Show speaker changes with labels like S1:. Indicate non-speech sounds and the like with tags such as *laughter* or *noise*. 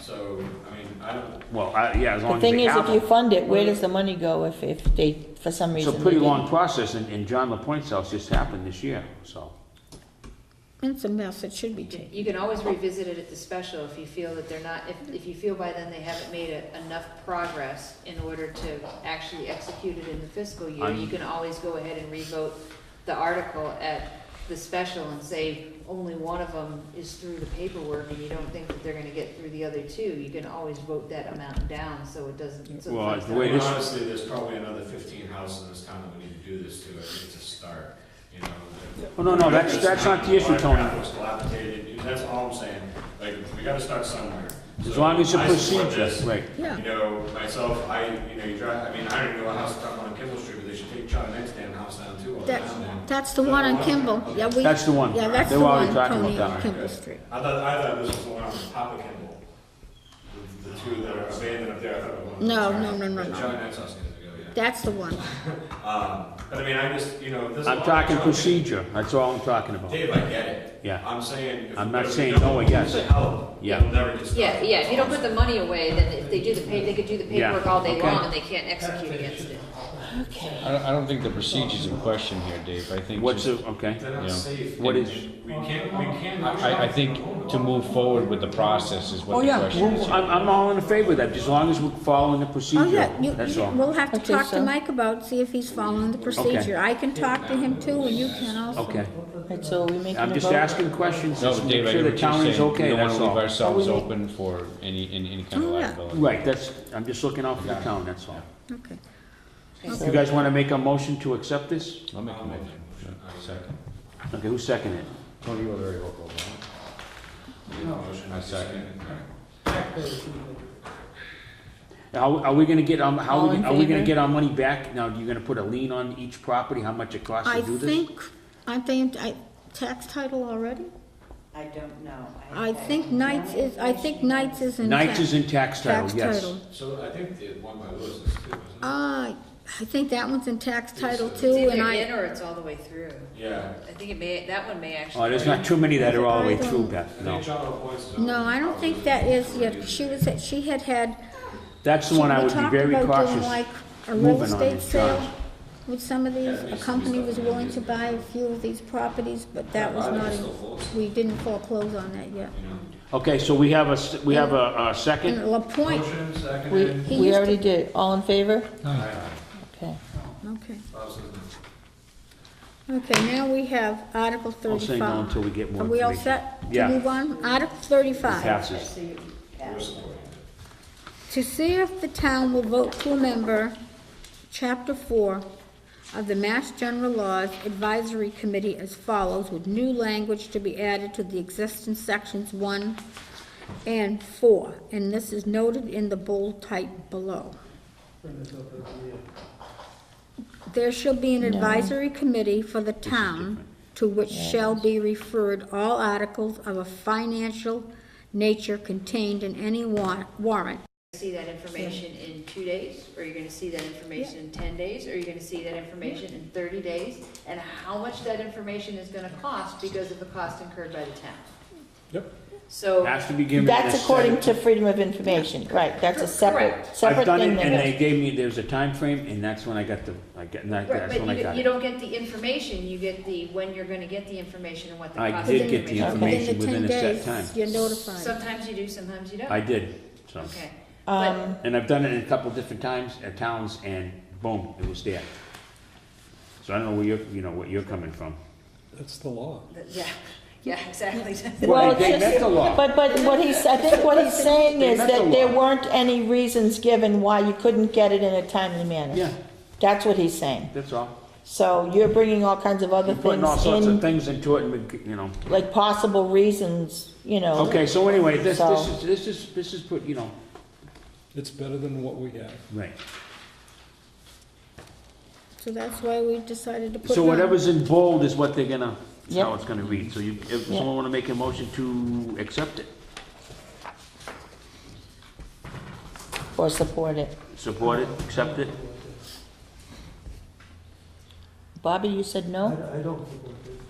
S1: So, I mean, I don't,
S2: Well, I, yeah, as long
S3: The
S2: as they
S3: thing is,
S2: have
S3: if you
S2: them.
S3: fund it, where does the money go if, if they, for some
S2: It's
S3: reason?
S2: a pretty
S3: they didn't?
S2: long process, and, and John LaPointe's house just happened this year, so.
S4: It's a mess, it should be changed.
S5: You can always revisit it at the special if you feel that they're not, if, if you feel by then they haven't made a- enough progress in order to actually execute it in the fiscal year, you
S2: I'm-
S5: can always go ahead and revote the article at the special and say only one of them is through the paperwork and you don't think that they're gonna get through the other two, you can always vote that amount down, so it doesn't. so it's
S2: Well,
S5: like
S2: the
S1: I
S2: way
S1: mean,
S2: this-
S1: honestly, there's probably another fifteen houses in this town that we need to do this to, I think it's a start, you know. that-
S2: Oh, no, no, that's- that's not the issue, Tony.
S1: It was dilapidated, you know, that's all I'm saying, like, we gotta start somewhere.
S2: As
S1: So,
S2: long as you
S1: I support this.
S2: procedure, right.
S4: Yeah.
S1: You know, myself, I, you know, you drive, I mean, I don't even know a house that's up on Kimball Street, but they should take John Knight's damn house down too, or down
S4: That's,
S1: there.
S4: that's the one on Kimball, yeah, we.
S2: That's the one.
S4: Yeah, that's
S2: They
S4: the
S2: were already
S4: one,
S2: talking about
S4: Tony,
S2: that
S4: on
S2: one.
S4: Kimball Street.
S1: I thought, I thought this was the one on Papa Kimball, the- the two that are abandoned up there, I thought it was. one-
S4: No, no, no, no,
S1: But
S4: no.
S1: John Knight's house needs to go, yeah.
S4: That's the one.
S1: Um, but I mean, I just, you know, this.
S2: I'm talking procedure, that's all I'm talking about.
S1: Dave, I get it.
S2: Yeah.
S1: I'm saying. if
S2: I'm
S1: we
S2: not
S1: don't-
S2: saying
S1: we don't
S2: no, I guess.
S1: say help,
S2: Yeah.
S1: it'll never get
S5: Yeah,
S1: started.
S5: yeah, if you don't put the money away, then if they do the pay, they could do the
S2: Yeah,
S5: paperwork all day
S2: okay.
S5: long and they can't execute against it.
S6: I don't, I don't think the procedure's in question here, Dave. I think
S2: What's
S6: just-
S2: the, okay,
S1: They're not
S6: Yeah.
S1: safe.
S2: What
S1: and-
S2: is-
S1: We can't, we can't.
S6: I, I think to move forward with the process is
S2: oh,
S6: what the
S2: yeah,
S6: question is.
S2: well, I'm, I'm all in favor of that, as long as we're following the
S4: Oh,
S2: procedure,
S4: yeah, you,
S2: that's
S4: you-
S2: all.
S4: we'll have to
S3: Okay,
S4: talk to
S3: so-
S4: Mike about, see if he's following the procedure. I can talk to him too, and you can also.
S2: Okay,
S3: Right, so are we making a
S2: I'm just
S3: vote?
S2: asking questions,
S6: No,
S2: just
S6: but
S2: make
S6: Dave, I
S2: sure
S6: get
S2: the
S6: what
S2: town
S6: you're
S2: is
S6: saying. We
S2: okay,
S6: don't
S2: that's
S6: wanna leave
S2: all.
S6: ourselves
S3: Oh, we-
S6: open for any, any, any kind of
S4: Oh, yeah.
S6: liability.
S2: Right, that's, I'm just looking out for the town, that's all.
S4: Okay.
S2: If you guys wanna make a motion to accept this?
S6: I'll make a motion. Second.
S2: Okay, who seconded it?
S6: Tony, you were very vocal.
S1: Motion,
S6: I second.
S2: Are, are we gonna get, um, how,
S3: All
S2: we-
S3: in
S2: are we gonna
S3: favor?
S2: get our money back? Now, you're gonna put a lien on each property, how much it costs
S4: I
S2: to do this?
S4: think, aren't they, in- I, tax title already?
S7: I don't know.
S4: I think Knights is, I think Knights is in tax.
S2: Knights is in tax title, yes.
S1: So I think the one by Lewis is too, isn't it?
S4: Uh, I think that one's in tax title
S1: It's
S4: too,
S5: It's
S4: and
S5: either
S4: I.
S5: in or it's all the way through.
S1: Yeah.
S5: I think it may, that one may actually.
S2: Oh, there's not too many that are all the way
S4: I
S2: through,
S4: don't-
S1: I
S2: Beth,
S1: think
S2: no.
S1: John LaPointe's is on-
S4: No, I don't think that is, yet. she was, she had had,
S2: That's the
S4: we
S2: one I would be
S4: talked
S2: very
S4: about doing
S2: cautious.
S4: like a
S2: moving
S4: real
S2: on
S4: estate
S2: these jobs.
S4: sale with some of these, a company was willing to buy a few of these properties, but that was not, we didn't foreclose on that yet.
S2: Okay, so we have a, s- we have a, a second?
S4: And La Pointe,
S1: Motion,
S3: We,
S1: seconded.
S4: He
S3: we
S4: used
S3: already did, all in favor?
S1: Aye.
S3: Okay.
S4: okay,
S1: Bob's in the-
S4: okay, now we have Article
S2: I'll say
S4: thirty-five.
S2: no until we get more
S4: Are we all
S2: information.
S4: set
S2: Yeah.
S4: to move on? Article thirty-five.
S2: Passes.
S1: We're supporting it.
S4: To see if the town will vote to member Chapter 4 of the Mass General Laws Advisory Committee as follows, with new language to be added to the existing sections 1 and 4, and this is noted in the bold type below. There shall be an advisory committee for the town to which shall be referred all articles of a financial nature contained in any wa- warrant
S5: See that information in two days, or you're gonna see that information in ten days, or you're gonna see that information in thirty days? And how much that information is gonna cost because of the cost incurred by the town?
S2: Yep.
S5: So.
S2: Has to be given. a
S3: That's
S2: set-
S3: according to freedom of information, right, that's a separate,
S5: Correct.
S3: separate
S2: I've done
S3: thing.
S2: it, and
S3: than-
S2: they gave me, there was a time frame, and that's when I got the, I got, and that-
S5: Right,
S2: that's
S5: but
S2: when I
S5: you,
S2: got
S5: don't- you
S2: it.
S5: don't get the information, you get the, when you're gonna get the information and what the
S2: I
S5: cost.
S2: did
S5: of
S2: get the
S5: information
S2: information
S4: Within the
S2: within a set
S4: 10 days,
S2: time.
S4: You're
S5: is.
S4: notified.
S5: Sometimes you do, sometimes you don't.
S2: I did, so.
S5: Okay. But-
S3: Um,
S2: And I've done it a couple different times at towns, and boom, it was there. So I don't know where you're, you know, what you're coming from.
S8: That's the law.
S5: Yeah, *laughs* yeah, exactly.
S2: Well,
S3: Well,
S2: they- they
S3: it's
S2: met
S3: just,
S2: the law.
S3: but, but what he's, I think what he's saying
S2: They
S3: is
S2: met
S3: that
S2: the
S3: there
S2: law.
S3: weren't any reasons given why you couldn't get it in a timely manner.
S2: Yeah.
S3: That's what he's saying.
S2: That's all.
S3: So you're bringing all kinds of other
S2: You're Putting all
S3: things
S2: sorts of
S3: in,
S2: things into it, and, we- you know.
S3: like possible reasons, you know.
S2: Okay, so anyway, this, this
S3: So-
S2: is, this is, this is put, you know,
S8: It's better than what we have.
S2: right.
S4: So that's why we decided to put it on.
S2: So whatever's in bold is what they're gonna, is how
S3: Yep.
S2: it's gonna read. So you, if
S3: Yeah.
S2: someone wanna make a motion to accept it,
S3: Or support it.
S2: support it, accept it?
S3: Bobby, you said
S8: I
S3: no?
S8: I don't think we do.